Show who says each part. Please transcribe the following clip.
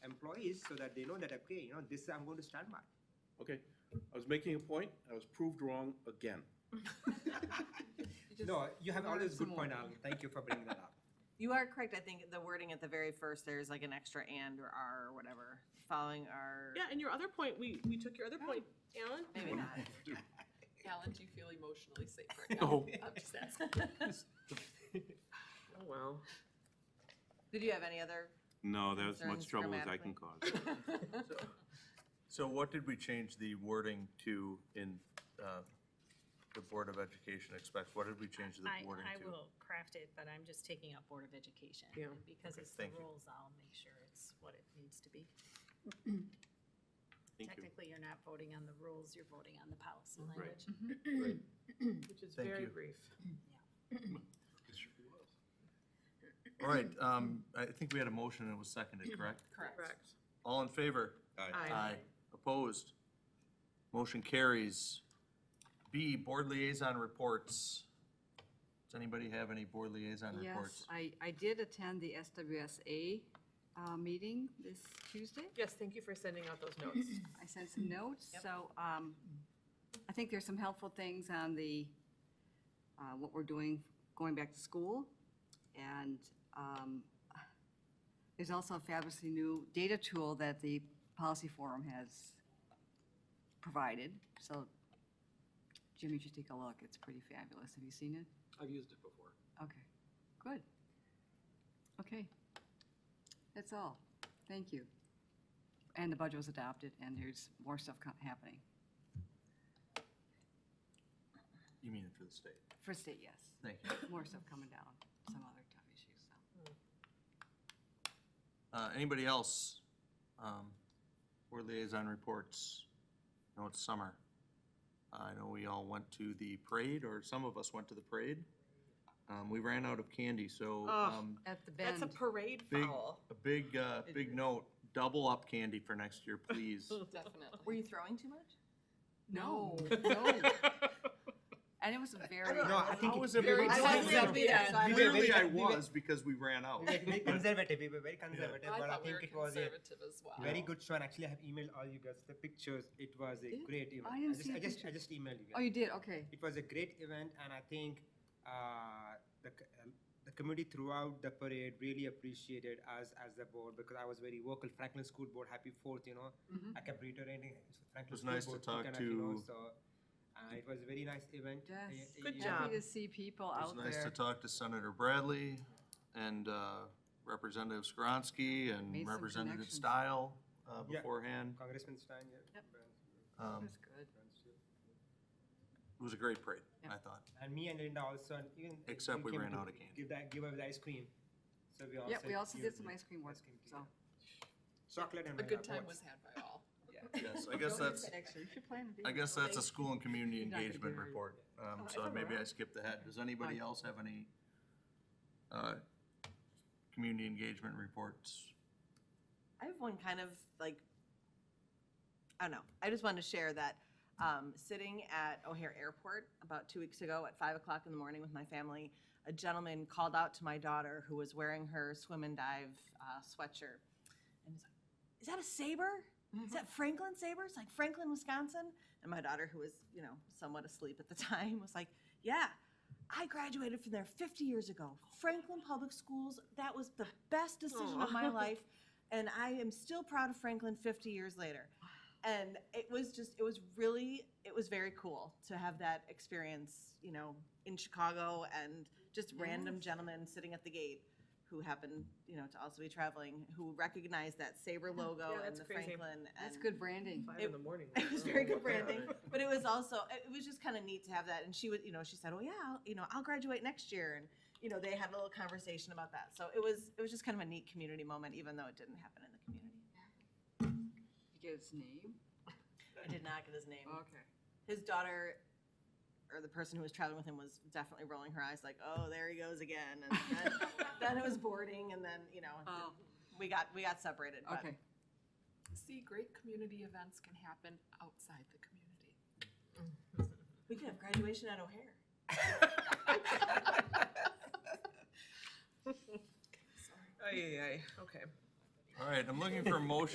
Speaker 1: employees so that they know that, okay, you know, this I'm going to stand by.
Speaker 2: Okay, I was making a point, I was proved wrong again.
Speaker 3: Just-
Speaker 1: No, you have
Speaker 3: learn
Speaker 1: always
Speaker 3: some
Speaker 1: good point,
Speaker 3: more.
Speaker 1: Alan. Thank you for bringing that up.
Speaker 3: You are correct. I think the wording at the very first, there's like an extra and or are or whatever, following our.
Speaker 4: Yeah, and your other point, we, we took your other point, Alan.
Speaker 3: Maybe not.
Speaker 5: Alan, do you feel emotionally safe right now?
Speaker 2: No.
Speaker 5: I'm just asking.
Speaker 4: Oh, wow.
Speaker 3: Did you have any other?
Speaker 6: No, that was
Speaker 3: Concerns
Speaker 6: much trouble as I can cause.
Speaker 7: So what did we change the wording to in uh, the Board of Education expects? What did we change the
Speaker 8: I,
Speaker 7: wording
Speaker 8: I
Speaker 7: to?
Speaker 8: will craft it, but I'm just taking up Board of Education.
Speaker 4: Yeah.
Speaker 8: and Because
Speaker 7: Okay,
Speaker 8: it's the
Speaker 7: thank you.
Speaker 8: rules, I'll make sure it's what it needs to be.
Speaker 6: Thank you.
Speaker 8: Technically, you're not voting on the rules, you're voting on the policy
Speaker 6: Right.
Speaker 8: language.
Speaker 4: Which is
Speaker 7: Thank
Speaker 4: very
Speaker 7: you.
Speaker 4: brief.
Speaker 7: All right, um, I think we had a motion and it was seconded, correct?
Speaker 5: Correct.
Speaker 4: Correct.
Speaker 7: All in favor?
Speaker 4: Aye.
Speaker 7: Uh, Opposed? Motion carries. B, Board Liaison Reports. Does anybody have any Board Liaison
Speaker 9: Yes,
Speaker 7: reports?
Speaker 9: I, I did attend the SWSA uh, meeting this Tuesday.
Speaker 4: Yes, thank you for sending out those notes.
Speaker 9: I sent some notes, so um, I think there's some helpful things on the, uh, what we're doing going back to school. And um, there's also a fabulously new data tool that the policy forum has provided. So Jim, you should take a look. It's pretty fabulous. Have you seen it?
Speaker 10: I've used it before.
Speaker 9: Okay, good. Okay. That's all. Thank you. And the budget was adopted, and there's more stuff co- happening.
Speaker 7: You mean it for the state?
Speaker 9: For state, yes.
Speaker 7: Thank you.
Speaker 9: More stuff coming down, some other tough issues, so.
Speaker 7: Uh, Anybody else? Um, Board Liaison Reports. I know it's summer. I know we all went to the parade, or some of us went to the parade. Um, We ran out of candy, so
Speaker 4: Ugh.
Speaker 7: um,
Speaker 9: At the
Speaker 4: That's a parade
Speaker 7: big,
Speaker 4: foul.
Speaker 7: a big, uh, big note, double up candy for next year, please.
Speaker 3: Were
Speaker 5: Definitely.
Speaker 3: you throwing too much?
Speaker 9: No, no. And it was very,
Speaker 1: No, I think
Speaker 7: How
Speaker 1: it's
Speaker 7: was it
Speaker 1: very
Speaker 5: I
Speaker 1: conservative.
Speaker 5: wasn't gonna be there, so I don't know.
Speaker 7: Clearly I
Speaker 1: we were-
Speaker 7: was because we ran out.
Speaker 1: We were very conservative. We were very conservative,
Speaker 5: I
Speaker 1: but I
Speaker 5: thought we were
Speaker 1: think it was a
Speaker 5: conservative as well.
Speaker 1: very good show. And actually, I have emailed all you guys the pictures. It was a great event.
Speaker 9: I didn't
Speaker 1: just,
Speaker 9: see
Speaker 1: I
Speaker 9: the
Speaker 1: just, I just emailed you. Guys.
Speaker 9: oh, you did, okay.
Speaker 1: It was a great event, and I think uh, the, c- um, the community throughout the parade really appreciated us as the board because I was very vocal. Franklin School Board, happy fourth, you know.
Speaker 9: Mm-hmm.
Speaker 1: I kept reiterating it's Franklin
Speaker 7: was
Speaker 1: School
Speaker 7: nice to
Speaker 1: Board,
Speaker 7: talk
Speaker 1: coconut, you know, so
Speaker 7: to-
Speaker 1: uh, it was a very nice event. Uh,
Speaker 9: Yes.
Speaker 1: uh,
Speaker 4: Good
Speaker 1: yeah.
Speaker 4: job.
Speaker 9: Happy to see people
Speaker 7: It was
Speaker 9: out
Speaker 7: nice to
Speaker 9: there.
Speaker 7: talk to Senator Bradley and uh, Representative Skronsky
Speaker 9: Made
Speaker 7: and
Speaker 9: some
Speaker 7: Representative
Speaker 9: connections.
Speaker 7: Style uh,
Speaker 1: Yeah.
Speaker 7: beforehand.
Speaker 1: Congressman Stein, yeah. Burns-
Speaker 7: Um,
Speaker 9: That's good.
Speaker 7: It was a great parade,
Speaker 9: Yeah.
Speaker 7: I thought.
Speaker 1: And me and Linda also, and even.
Speaker 7: Except
Speaker 1: Jim
Speaker 7: we
Speaker 1: came
Speaker 7: ran
Speaker 1: to
Speaker 7: out of candy.
Speaker 1: Give that, give away the ice cream. So we also.
Speaker 9: Yep, we also
Speaker 1: gave
Speaker 9: did some
Speaker 1: the
Speaker 9: ice cream work,
Speaker 1: cream to
Speaker 9: so.
Speaker 1: you. Chocolate and.
Speaker 5: A good
Speaker 1: Milo
Speaker 5: time was
Speaker 1: both.
Speaker 5: had by all.
Speaker 7: Yes, I guess that's,
Speaker 9: Actually, you should plan to be.
Speaker 7: I
Speaker 9: here.
Speaker 7: guess that's a school and community
Speaker 9: You're not gonna
Speaker 7: engagement
Speaker 9: do it.
Speaker 7: report. Um,
Speaker 9: Oh,
Speaker 7: So
Speaker 9: it's
Speaker 7: maybe I
Speaker 9: around.
Speaker 7: skipped ahead. Does anybody
Speaker 9: Fine.
Speaker 7: else have any uh, community engagement reports?
Speaker 3: I have one kind of like, I don't know. I just wanted to share that um, sitting at O'Hare Airport about two weeks ago at five o'clock in the morning with my family, a gentleman called out to my daughter who was wearing her swim and dive uh, sweatshirt. And he's like, Is that a saber? Is that Franklin Saber? It's like Franklin, Wisconsin. And my daughter, who was, you know, somewhat asleep at the time, was like, Yeah, I graduated from there 50 years ago. Franklin Public Schools, that was the best decision of my life. And I am still proud of Franklin 50 years later. And it was just, it was really, it was very cool to have that experience, you know, in Chicago and just random gentlemen sitting at the gate who happened, you know, to also be traveling, who recognized that Sabre logo and
Speaker 4: that's
Speaker 3: the
Speaker 4: crazy.
Speaker 3: Franklin.
Speaker 9: That's
Speaker 3: and-
Speaker 9: good branding.
Speaker 4: Five
Speaker 3: It-
Speaker 4: in the morning.
Speaker 3: it was very good branding, but it was also it was just kind of neat to have that. And she was, you know, she said, "Oh yeah, I'll, you know, I'll graduate next year," and you know, they had a little conversation about that. So it was it was just kind of a neat community moment, even though it didn't happen in the community.
Speaker 9: You get its name?
Speaker 3: I did not get his name.
Speaker 9: Okay.
Speaker 3: His daughter, or the person who was traveling with him, was definitely rolling her eyes, like, "Oh, there he goes again." And then, then it was boarding, and then you know,
Speaker 9: Oh.
Speaker 3: we got we got separated. But
Speaker 9: Okay.
Speaker 5: See, great community events can happen outside the community.
Speaker 3: we could have graduation at O'Hare.
Speaker 4: Aye, aye, aye. Okay.
Speaker 7: All right, I'm looking for a motion